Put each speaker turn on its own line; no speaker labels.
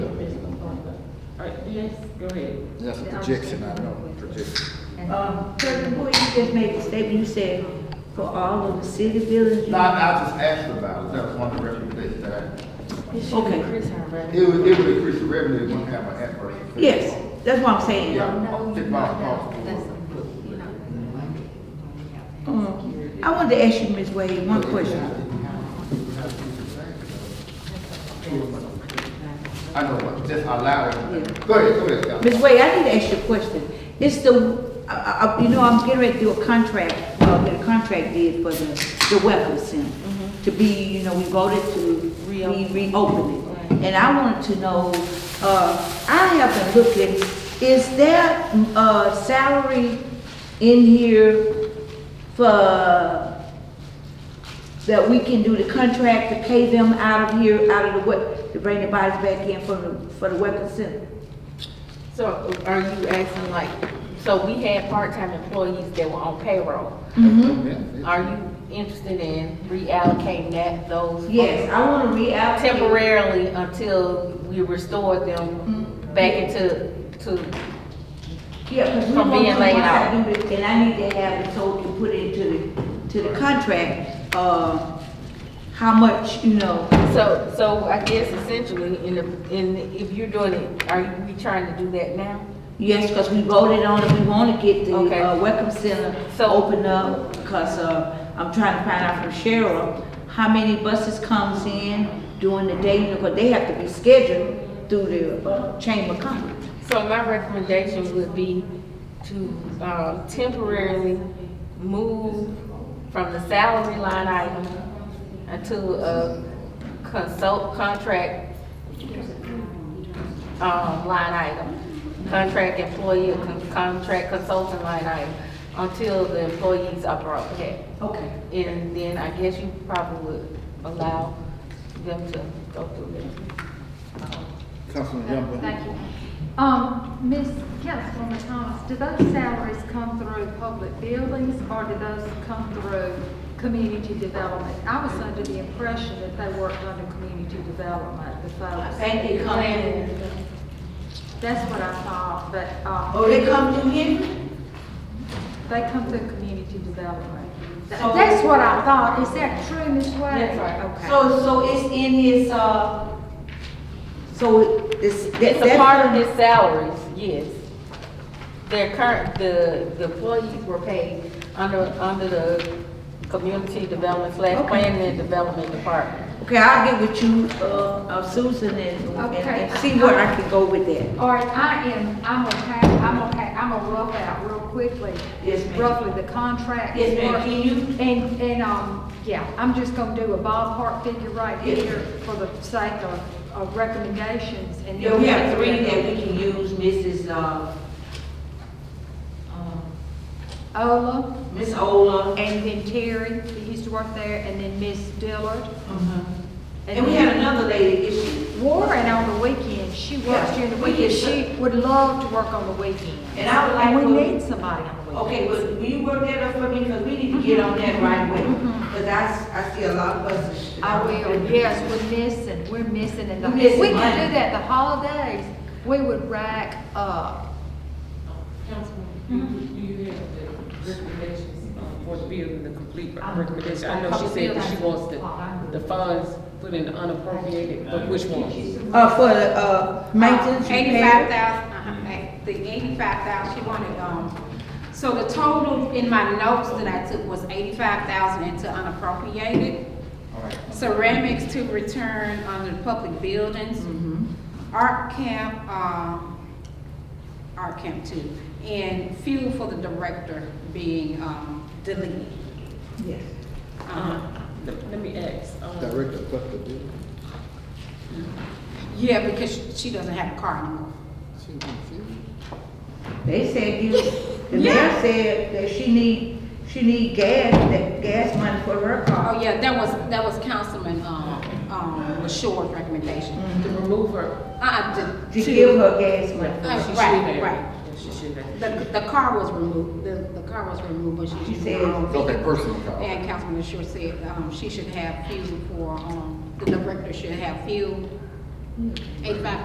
Yes, go ahead.
That's a projection, I know, projection.
Um, President Bowie, you just made a statement, you said for all of the city buildings. you-
No, I I just asked about it, that was one of the recommendations that I,
Okay.
it would, it would increase the revenue, it wouldn't have an adverse. effect.
Yes, that's what I'm saying.
Yeah.
No,
It's
you're
not
not,
possible.
that's, you're not.
Um, I wanted to ask you, Ms. Wade, one question.
I know, but just allow it, go ahead, go ahead, Scott.
Ms. Wade, I need to ask you a question. It's the, I- I- I- you know, I'm getting ready to do a contract, uh, get a contract bid for the, the welcome center. To be, you know, we voted to re- reopen it. And I wanted to know, uh, I haven't looked at, is there, uh, salary in here for, that we can do the contract to pay them out of here, out of the, what, to bring the bodies back in for the, for the welcome center?
So are you asking like, so we had part-time employees that were on payroll. Are you interested in reallocating that, those?
Yes, I want to reallocate.
Temporarily until we restore them back into, to,
Yeah, because we
From
want
being
to,
laid
once I
out.
do this, and I need to have it so we can put it into the, to the contract, uh, how much, you know,
so, so I guess essentially, in, the- in, if you're doing it, are you- we trying to do that now?
yes, because we voted on it, we want to get the,
Okay.
uh, Welcome Center
So-
opened up, because, uh, I'm trying to find out from Cheryl, how many buses comes in during the day, because they have to be scheduled through the, uh, Chamber of Commerce.
So my recommendation would be to uh, temporarily move from the salary line item until a consult contract um, line item, contract employee, con- contract consultant line item, until the employees are brought back.
Okay.
And then I guess you probably would allow them to go through it.
Councilman
Mm-hmm.
Youngwood.
Thank you. Um, Ms. Councilwoman Thomas, do those salaries come through public buildings or do those come through community development? I was under the impression that they worked under community development, the folks.
think they come in.
That's what I thought, but, uh.
Oh, they come through here?
They come through community development. Th-
So-
That's what I thought. Is that true, Ms. Wade?
That's right.
Okay.
So, so it's in his, uh, so it's.
It's a part of his salaries, yes. Their current, the, the employees were paid under, under the community development slash
Okay.
planning and development department.
Okay, I'll get with you, uh, uh, Susan and, and-
Okay.
and see where I can go with that.
All right, I am, I'm okay, I'm okay, I'm gonna rough out real quickly.
Yes, ma'am.
Roughly the contract.
Yes, ma'am. Can you-
And, and, um, yeah, I'm just gonna do a ballpark figure right
Yes.
here for the sake of, of recommendations and.
Yeah, we have three that we can use, Mrs., uh, um,
Ola,
Ms. Ola.
and then Terry, that used to work there, and then Miss Dillard.
Mm-hmm. And we had another lady, is she,
Warren on the weekend, she works
Yeah,
during the
we
weekend,
can-
she would love to work on the weekend.
And I would like
we
for-
need somebody on the weekend.
okay, but will you work that up for me, because we need to get on that right away. Because I, s- I see a lot of buses.
I will, yes, we're missing, we're missing in the,
We're missing
we can
money.
do that, the holidays, we would rack up.
Do you have the recommendations um, for the building, the complete recommendation? I know she said that she wants the, the funds put in unappropriated, but which ones?
Uh, for, the, uh, maintenance
Eighty-five
repair.
thousand, uh, the eighty-five thousand, she wanted, um, so the total in my notes that I took was eighty-five thousand into unappropriated. Ceramics to return under the public buildings.
Mm-hmm.
Art camp, um, art camp two, and fuel for the director being, um, deleted.
Yes.
Um,
Uh-huh. Let let me ask, um,
Director Buck to do. it.
Yeah, because she doesn't have a car anymore.
She confused.
They said you, the mayor said that she need, she need gas, that gas money for her car.
Oh, yeah, that was, that was Councilman, um, um, LaShaw's recommendation.
to remove her,
Uh, to,
To give
to,
her gas money.
Uh,
she should
right,
have.
right.
Yeah, She should have.
the, the car was removed, the, the car was removed, but she.
She
should-
said-
Okay, personal call.
And Councilman LaShaw said, um, she should have fuel for, um, the director should have fuel. Eighty-five